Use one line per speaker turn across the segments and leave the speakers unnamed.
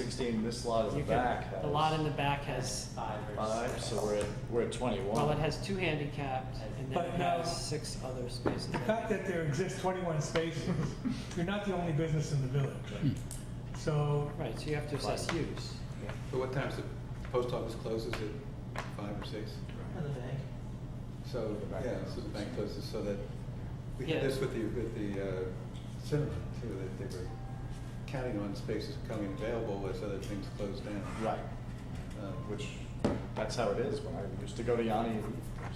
sixteen, this lot in
You
the
can-
back has.
The lot in the back has,
Five or
Five,
six.
so we're at, we're at twenty-one.
well, it has two handicapped, and then
But
it
now-
has six other spaces.
The fact that there exist 21 spaces, you're not the only business in the village.
Hmm.
So
Right, so you have to assess use.
But what time's the post office closes at five or six?
Oh,
Another bank.
So,
The bank
yeah, so the bank closes so that, we
Yeah.
had this with the, with the uh, cinema too, that they were counting on spaces becoming available as other things closed down.
Right,
Uh,
which, that's how it is, when I used to go to Yanni.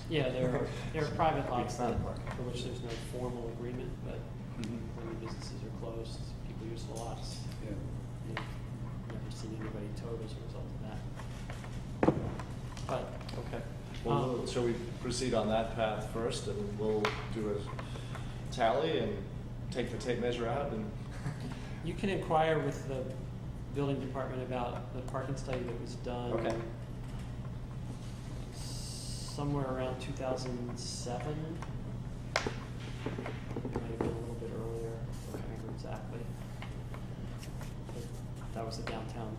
Yeah, there are, there are private lots
It's not
that,
a park.
for which there's no formal agreement, but
Mhm.
when the businesses are closed, people use the lots.
Yeah,
You've Never seen anybody towed as a result of that. But, okay.
Well,
Um,
we'll- shall we proceed on that path first, and we'll do a tally and take the tape measure out and.
You can inquire with the building department about the parking study that was done.
Okay.
Somewhere around two thousand seven. Might have been a little bit earlier, I don't remember exactly. But That was a downtown,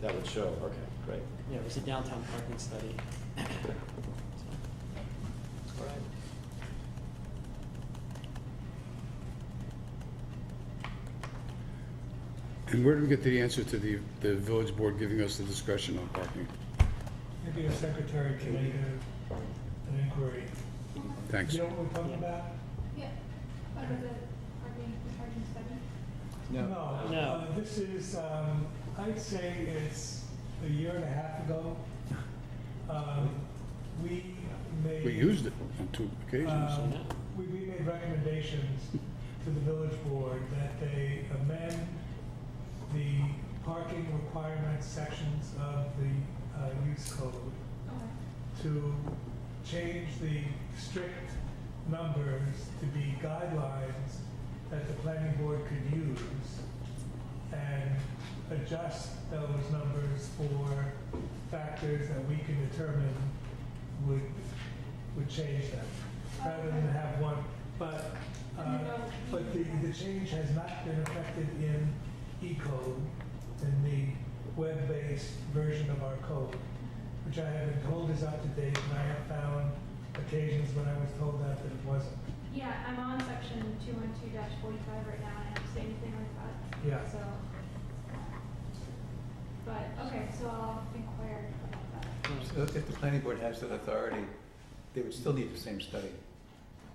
That would show, okay, great.
yeah, it was a downtown parking study. So,
All right.
And where do we get the answer to the, the village board giving us the discretion on parking?
maybe a secretary can make a- an inquiry.
Thanks.
You know what we're talking about?
Yeah, Oh, under the parking, the parking study.
No.
Uh, This is, um, I'd say it's a year and a half ago. Um, We made.
We used it on two
Um,
occasions.
We, we made recommendations to the village board that they amend the parking requirement sections of the uh, use code
Okay.
to change the strict numbers to be guidelines that the planning board could use and adjust those numbers for factors that we can determine would, would change them, rather than have one. But, uh, but the, the change has not been affected in E-code, in the web-based version of our code which I have been told is up to date, and I have found occasions when I was told that that it wasn't.
Yeah, I'm on section two one two dash forty-five right now, and I don't see anything like that,
Yeah.
so. But, okay, so I'll inquire about that.
so if the planning board has that authority, they would still need the same study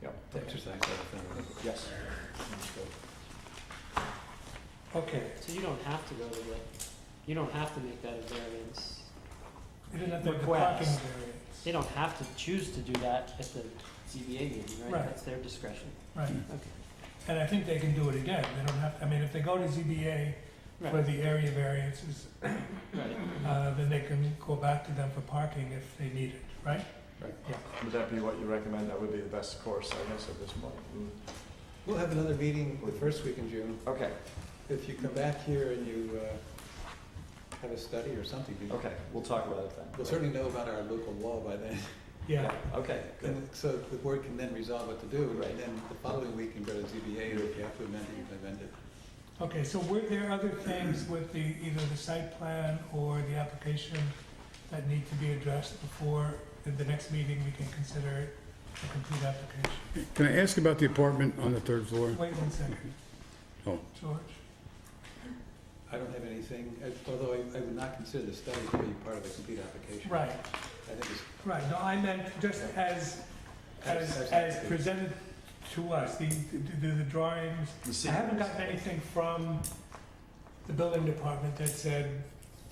Yep,
to exercise that authority.
yes.
Okay.
So you don't have to go to the, you don't have to make that a variance.
You didn't have to have the parking
Request.
variance.
They don't have to choose to do that at the ZBA meeting, right?
Right.
That's their discretion.
Right,
Okay.
and I think they can do it again, they don't have, I mean, if they go to ZBA for
Right.
the area variances,
Right.
uh, then they can go back to them for parking if they need it, right?
Would that be what you recommend? That would be the best course, I guess, at this point. Mm.
Mm-hmm. We'll have another meeting the first week in June.
Okay,
If you come back here and you uh, have a study or something, you-
okay, we'll talk about it then.
we'll certainly know about our local law by then.
Yeah,
Okay, good.
And so the board can then resolve what to do,
Right.
and then the following week can go to ZBA, and if you have to amend it, you can amend it.
okay, so were there other things with the, either the site plan or the application that need to be addressed before, at the next meeting, we can consider it a complete application?
Can I ask about the apartment on the third floor?
Wait one second.
Oh.
George?
I don't have anything, I- although I I would not consider the study to be part of a complete application.
Right,
I think it's
right, no, I meant just as, as, as presented to us, the, the, the drawings.
The
I haven't
sequence.
gotten anything from the building department that said,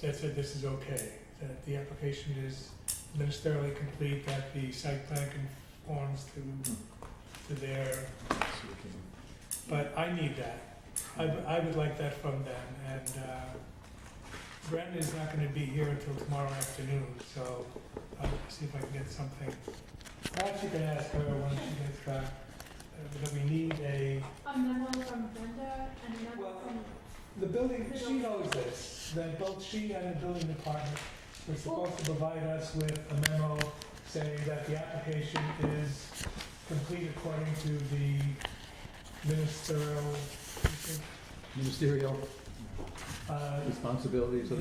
that said this is okay, that the application is ministerially complete, that the site plan conforms to, to their,
So we can-
but I need that. I, would- I would like that from them, and, uh, Brendan's not gonna be here until tomorrow afternoon, so I'll see if I can get something. Perhaps you can ask her when she gets back, uh, that we need a,
A Um, memo from Brenda and a memo
Well,
from,
the building, she knows this, that both she and the building department were supposed to provide us with a memo saying that the application is complete according to the ministerial,
Ministerial
uh,
responsibilities of